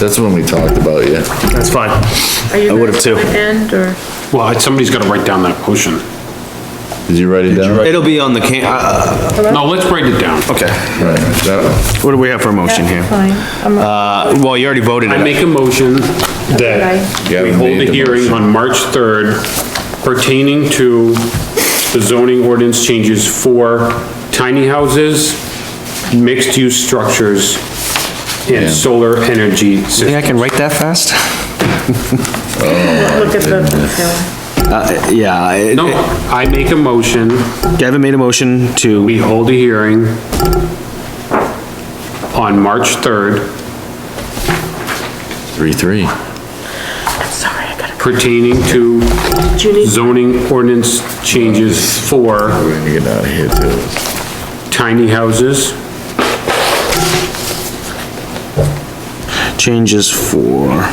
That's when we talked about you. That's fine. Are you I would've ready too. to End or? Well, somebody's gotta write down that motion. Did you write it down? It'll be on the can, uh, No, let's write it down. okay. Right, that What do we have for a motion here? Fine. I'm all Uh, well, you already voted I it. make a motion that right. Yeah, we we hold made the the hearing motion. on March 3rd pertaining to the zoning ordinance changes for tiny houses, mixed-use structures, and solar energy systems. I can write that fast? Look at the, Uh, yeah, I- No, I make a motion, Gavin made a motion to, we hold a hearing on March 3rd Three, three. I'm sorry, I gotta, pertaining to do you need, zoning ordinance changes for We're gonna get out of here too. tiny houses, changes for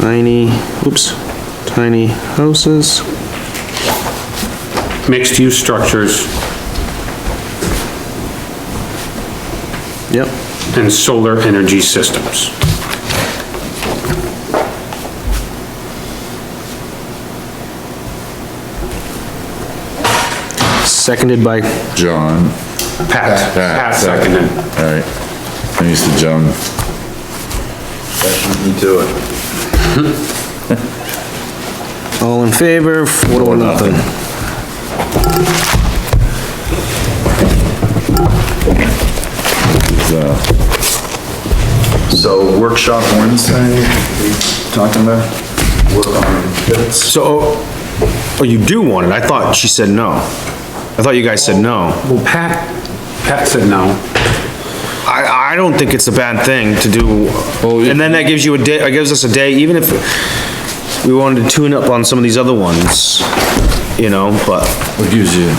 tiny, oops, tiny houses, mixed-use structures, yep. and solar energy systems. Seconded by, John. Pat, Pat seconded. Alright, I'm used to John. You do it. all in favor, four to one, nothing. So workshop Wednesday, talking about, work on bits. So, oh, oh, you do want it, I thought she said no. I thought you guys said no. Well, Pat, Pat said no. I, I don't think it's a bad thing to do, and then that gives you a day, it gives us a day, even if we wanted to tune up on some of these other ones, you know, but What gives you?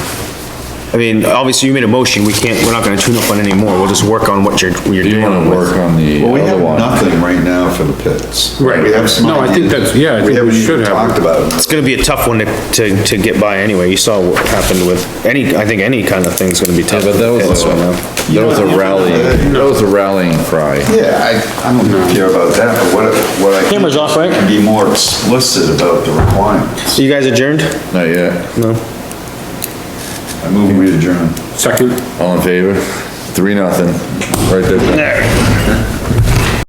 I mean, obviously you made a motion, we can't, we're not gonna tune up on any more, we'll just work on what you're, what you're Do you doing. wanna work on the Well, we other have one? nothing right now for the pits. Right. We have some. No, I think that's- yeah, I think we We haven't should even have. talked about it. It's gonna be a tough one to, to, to get by anyway, you saw what happened with, any, I think any kind of thing's gonna be tough. Yeah, but that was That's a- what I'm- That was a rally, that was a rallying cry. Yeah, I, I don't care about that, but what, what I. can- Camera's off, right? can Be more explicit about the requirements. So you guys adjourned? Not yet. I move we adjourn. Second, All in favor? Three, nothing. Right there.